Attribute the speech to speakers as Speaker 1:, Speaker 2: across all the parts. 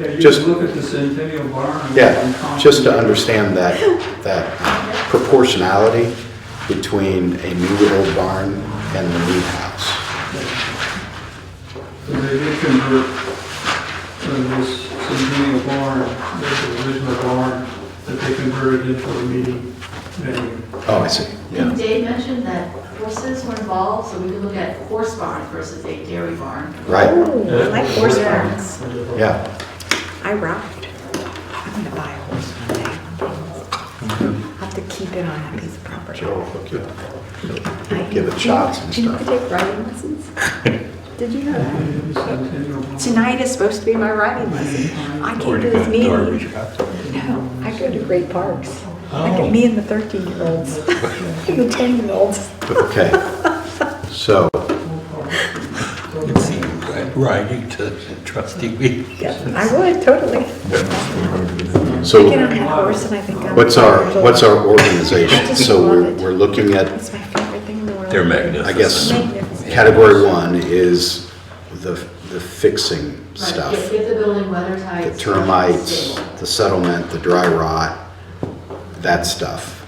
Speaker 1: Yeah, you
Speaker 2: Just-
Speaker 1: can look at the Centennial Barn.
Speaker 2: Yeah, just uh, to understand that, that proportionality between a new and old barn and the new house.
Speaker 1: So they did convert uh, this Centennial Barn, this original barn, that they converted into a meeting venue.
Speaker 2: Oh, I see, yeah.
Speaker 3: Dave mentioned that horses were involved, so we could look at horse barn versus a dairy barn.
Speaker 2: Right,
Speaker 4: Ooh, I like horse barns.
Speaker 2: yeah.
Speaker 4: I ride. I'm gonna buy a horse one day. Have to keep it on that piece of property.
Speaker 2: Joe will hook you up.
Speaker 4: I-
Speaker 2: give it shots and
Speaker 4: Do you know I
Speaker 2: stuff.
Speaker 4: take riding lessons? Did you know that?
Speaker 1: The Centennial Barn.
Speaker 4: Tonight is supposed to be my riding lesson. I can't do this meeting. No, I go to great parks.
Speaker 2: Oh.
Speaker 4: Like me and the 13-year-olds, the 10-year-olds.
Speaker 2: Okay. So,
Speaker 5: It's writing to trustee Weeks.
Speaker 4: I would, totally. I get on
Speaker 2: so
Speaker 4: that horse and I think I'm.
Speaker 2: what's our, what's our organization? So we're, we're looking at,
Speaker 4: It's my favorite thing in the world.
Speaker 5: They're magnificent.
Speaker 2: I guess,
Speaker 4: Magnificent.
Speaker 2: category one is the, the fixing
Speaker 3: Right,
Speaker 2: stuff.
Speaker 3: Give give the building weather tight.
Speaker 2: the termites, the settlement, the dry rot, that stuff.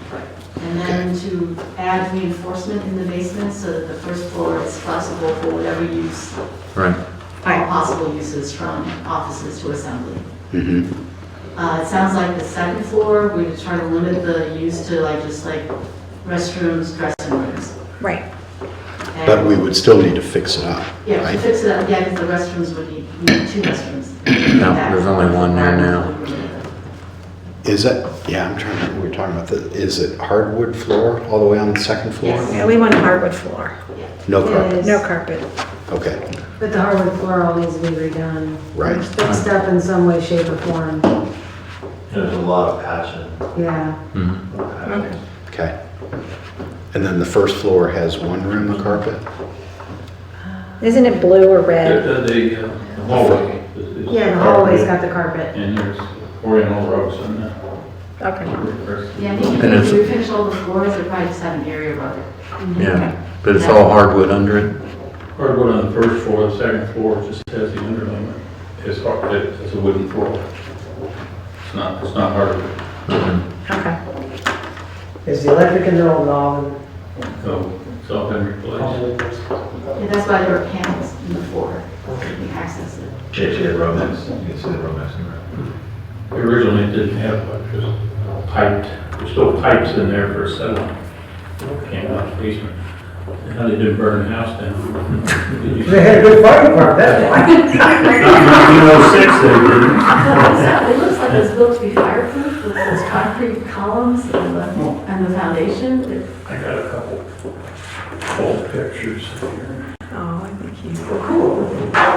Speaker 3: And then to add reinforcement in the basement so that the first floor is flexible for whatever use,
Speaker 2: Right.
Speaker 3: all possible uses from offices to assembly.
Speaker 2: Mm-hmm,
Speaker 3: Uh, It sounds like the second floor, we would try to limit the use to like, just like restrooms, dressing rooms.
Speaker 4: Right,
Speaker 3: And-
Speaker 2: but we would still need to fix it up,
Speaker 3: Yeah, to
Speaker 2: right?
Speaker 3: fix it up, yeah, because the restrooms would need, we need two restrooms.
Speaker 6: No, there's only one there now.
Speaker 2: Is it, yeah, I'm trying to, remember. we were talking about the, is it hardwood floor all the way on the second floor?
Speaker 3: Yes.
Speaker 4: yeah, we want a hardwood floor,
Speaker 2: No carpet,
Speaker 7: Yes.
Speaker 4: no carpet.
Speaker 2: okay,
Speaker 7: But the hardwood floor all needs to be redone.
Speaker 2: Right.
Speaker 7: It's Fixed up in some way, shape, or form,
Speaker 8: There's a lot of passion.
Speaker 7: yeah.
Speaker 2: okay. And then the first floor has one room of carpet?
Speaker 4: Isn't it blue or red?
Speaker 9: The uh, hallway. is- is
Speaker 7: Yeah, the hallway's got
Speaker 9: carpeted,
Speaker 7: the carpet.
Speaker 9: And there's oriental rugs in there.
Speaker 4: Okay.
Speaker 3: Yeah, I think
Speaker 6: And
Speaker 3: if
Speaker 6: it's-
Speaker 3: we finish all the floors, they probably just have an area rug.
Speaker 6: Yeah, but it's all hardwood under it.
Speaker 9: Hardwood on the first floor, the second floor just has the underlayment. It's hard, it- it's a wooden floor. It's not, it's not hardwood.
Speaker 4: Okay.
Speaker 7: Is the electric in there all
Speaker 9: So it's all been replaced.
Speaker 3: Yeah, that's why there are panels in the floor, so we can access it.
Speaker 8: JJ Romance, you can see the romance in there.
Speaker 9: We Originally it didn't have electricity, piped, there's still pipes in there for settling. Came out of the basement. How they did burn the house down. They had a good fire department, that's why. 1906 they
Speaker 3: It
Speaker 9: did.
Speaker 3: looks like it's built to be fireproof with those concrete columns and the, and the foundation. It's
Speaker 9: I got a couple old pictures here.
Speaker 4: Oh, I think you.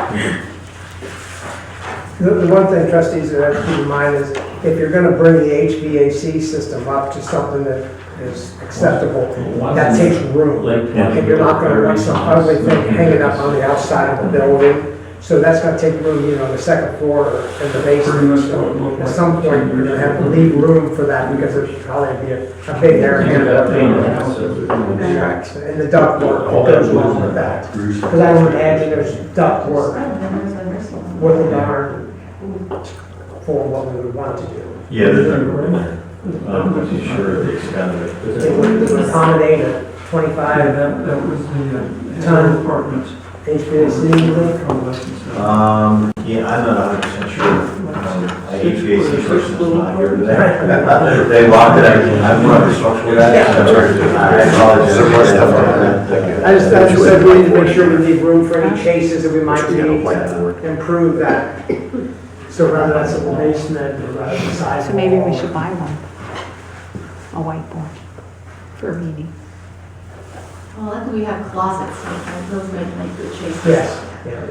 Speaker 10: The the one thing trustees would have to keep in mind is if you're going to bring the HVAC system up to something that is acceptable, that takes room. And you're not going to want some ugly thing hanging up on the outside of the building. So that's going to take room, you know, the second floor or in the basement. So At some point, you're going to have to leave room for that because there's probably be a a big air handler. Correct. And the duct work that goes along with that. Because I would imagine there's duct work with the barn for what we would want to do.
Speaker 8: Yeah, there's a room there. I'm pretty sure they expanded it.
Speaker 10: It would accommodate a
Speaker 1: Yeah,
Speaker 10: twenty-five
Speaker 1: that, that was the uh,
Speaker 10: Time.
Speaker 1: apartments.
Speaker 10: HVAC.
Speaker 8: Um, yeah, I'm not hundred percent sure. Um, I HVAC person's not here today. They locked it, I- I'm not the structural guy. I apologize.
Speaker 2: Some more stuff on that.
Speaker 10: I just, I just said we need to make sure we leave room for any chases that we might
Speaker 2: We got a
Speaker 10: need
Speaker 2: whiteboard.
Speaker 10: to improve that. So rather that's a basement or rather the side.
Speaker 4: So maybe we
Speaker 10: wall.
Speaker 4: should buy one, a whiteboard for a meeting.
Speaker 3: Well, luckily we have closets, so those might make good choices.
Speaker 10: Yes, yeah.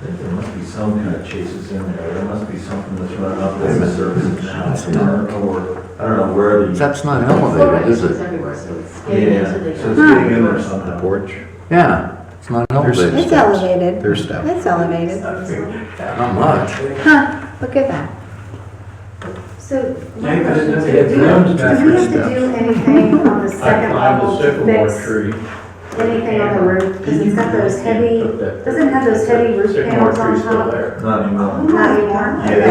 Speaker 8: There must be some kind of chases in there. There must be something that's running up as a service now. Or, I don't know where the,
Speaker 6: That's not
Speaker 3: Floor
Speaker 6: elevated, is
Speaker 3: renovations
Speaker 6: it?
Speaker 3: everywhere, so it's getting
Speaker 8: yeah,
Speaker 3: into
Speaker 8: so
Speaker 3: the.
Speaker 8: it's getting in there
Speaker 2: The
Speaker 8: somehow.
Speaker 2: porch,
Speaker 6: Yeah, it's not elevated.
Speaker 4: It's elevated.
Speaker 2: there's that.
Speaker 4: It's elevated.
Speaker 6: Not much.
Speaker 4: Huh, look at that.
Speaker 7: So,
Speaker 9: Yeah,
Speaker 7: my
Speaker 9: but
Speaker 7: question
Speaker 9: it
Speaker 7: is,
Speaker 9: doesn't
Speaker 7: do
Speaker 9: have
Speaker 7: we do we
Speaker 9: grounds back
Speaker 2: stuff.
Speaker 7: have to do
Speaker 9: or
Speaker 7: anything on the
Speaker 9: I
Speaker 7: second
Speaker 9: climbed
Speaker 7: level
Speaker 9: a
Speaker 7: to
Speaker 9: sycamore
Speaker 7: fix
Speaker 9: tree.
Speaker 7: anything on the roof? Because it's got those heavy, doesn't it have those heavy roof
Speaker 9: Sycamore
Speaker 7: panels on
Speaker 9: tree's still
Speaker 7: top?
Speaker 9: there.
Speaker 8: Not anymore.
Speaker 7: Not anymore?
Speaker 8: Yeah,
Speaker 7: Okay.